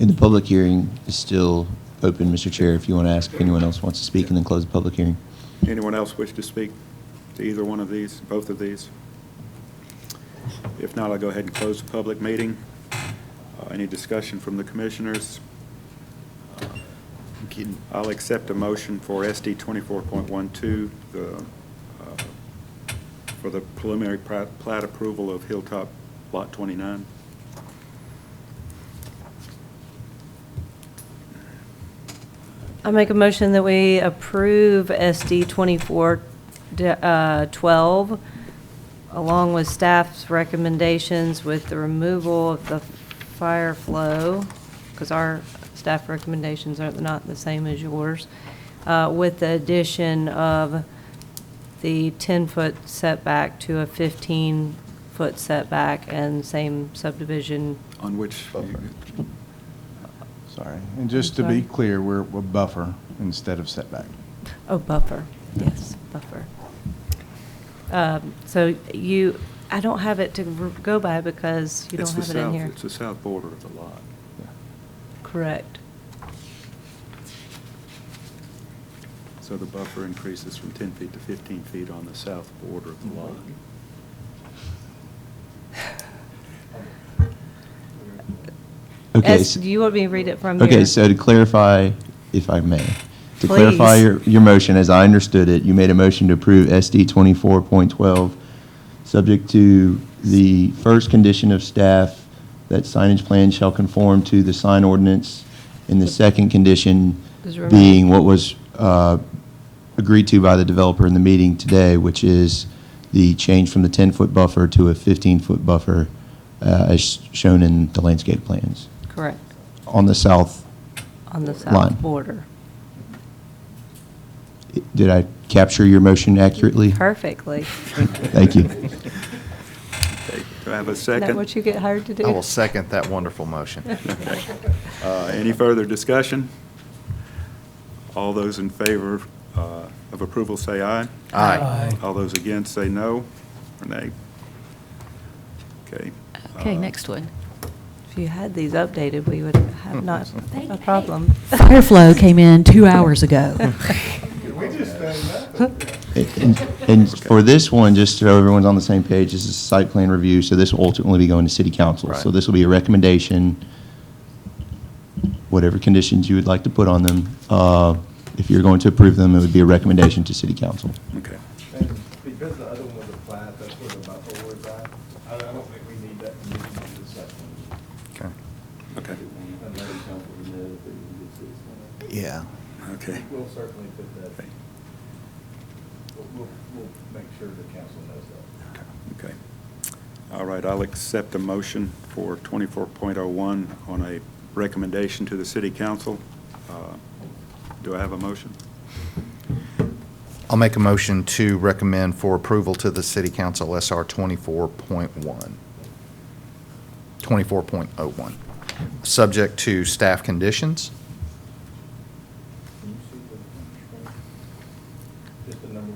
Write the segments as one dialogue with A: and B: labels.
A: And the public hearing is still open, Mr. Chair, if you want to ask if anyone else wants to speak and then close the public hearing.
B: Anyone else wish to speak to either one of these, both of these? If not, I'll go ahead and close the public meeting. Uh, Any discussion from the commissioners? Uh, I'll accept a motion for SD 24.12, the, uh, for the preliminary pra- plat approval of Hilltop Lot 29.
C: I make a motion that we approve SD 24, d- uh, 12, along with staff's recommendations with the removal of the fire flow, because our staff recommendations are not the same as yours, uh, with the addition of the 10-foot setback to a 15-foot setback and same subdivision.
B: On which,
D: Sorry. And just to
C: Sorry.
D: be clear, we're, we're buffer instead of setback.
C: Oh, buffer, yes, buffer. Um, So you, I don't have it to r- go by because you don't
B: it's the
C: have it in
B: south,
C: here.
B: it's the south border of the lot.
C: Correct.
B: So the buffer increases from 10 feet to 15 feet on the south border of the lot.
A: Okay,
C: As-
A: so-
C: Do you want me to read it from here?
A: Okay, so to clarify, if I may, to clarify
C: Please.
A: your, your motion, as I understood it, you made a motion to approve SD 24.12, subject to the first condition of staff, that signage plan shall conform to the sign ordinance, and the second condition
C: Is removed.
A: being what was uh, agreed to by the developer in the meeting today, which is the change from the 10-foot buffer to a 15-foot buffer, uh, as shown in the landscape plans,
C: Correct,
A: on the south
C: on the
A: Line.
C: south border.
A: Did I capture your motion accurately?
C: Perfectly.
A: Thank you.
B: Okay, Do I have a
C: Isn't
B: second?
C: that what you get hired to do?
E: I will second that wonderful motion.
B: Uh, Any further discussion? All those in favor uh, of approval say aye.
E: Aye.
B: All those against say no or nay. Okay.
F: Okay,
B: Uh,
F: next one.
C: If you had these updated, we would have not,
F: They-
C: a
F: hey,
C: problem.
F: Fireflow came in two hours ago.
A: And- And for this one, just so everyone's on the same page, this is site plan review, so this will ultimately be going to city council. So
E: Right.
A: this will be a recommendation, whatever conditions you would like to put on them. uh, If you're going to approve them, it would be a recommendation to city council.
B: Okay.
G: And because the other one was a plat, that's where the buffer was at, I I don't think we need that condition to this one.
E: Okay.
B: Okay.
G: Unless council knows that you can get this
E: Yeah.
B: Okay.
G: one. We'll certainly put that,
B: Okay.
G: we'll, we'll- we'll make sure the council knows that.
B: Okay. All right, I'll accept a motion for 24.01 on a recommendation to the city council. Uh, Do I have a motion?
E: I'll make a motion to recommend for approval to the City Council SR 24.1. 24.01, subject to staff conditions.
G: Can you see the, just the number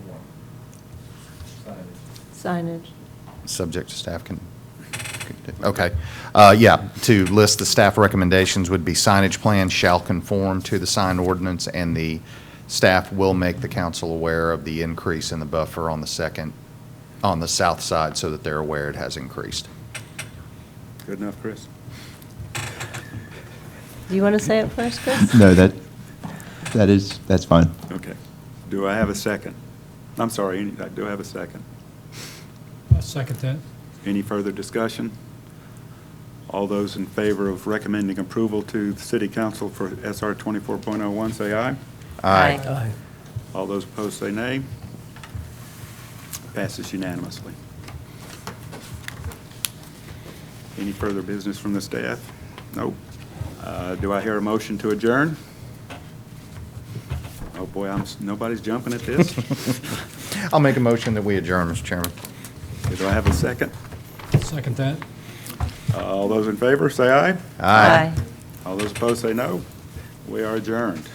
G: one? Signage.
C: Signage.
E: Subject to staff can, okay. Uh, Yeah, to list the staff recommendations would be signage plan shall conform to the sign ordinance, and the staff will make the council aware of the increase in the buffer on the second, on the south side, so that they're aware it has increased.
B: Good enough, Chris?
C: Do you want to say it first, Chris?
A: No, that, that is, that's fine.
B: Okay. Do I have a second? I'm sorry, any- uh, do I have a second?
H: I second that.
B: Any further discussion? All those in favor of recommending approval to the city council for SR 24.01, say aye.
E: Aye.
B: All those opposed, say nay. Passes unanimously. Any further business from the staff? Nope. Uh, Do I hear a motion to adjourn? Oh, boy, I'm, s- nobody's jumping at this.
E: I'll make a motion that we adjourn, Mr. Chairman.
B: Do I have a second?
H: Second that.
B: Uh, All those in favor, say aye.
C: Aye.
B: All those opposed, say no. We are adjourned.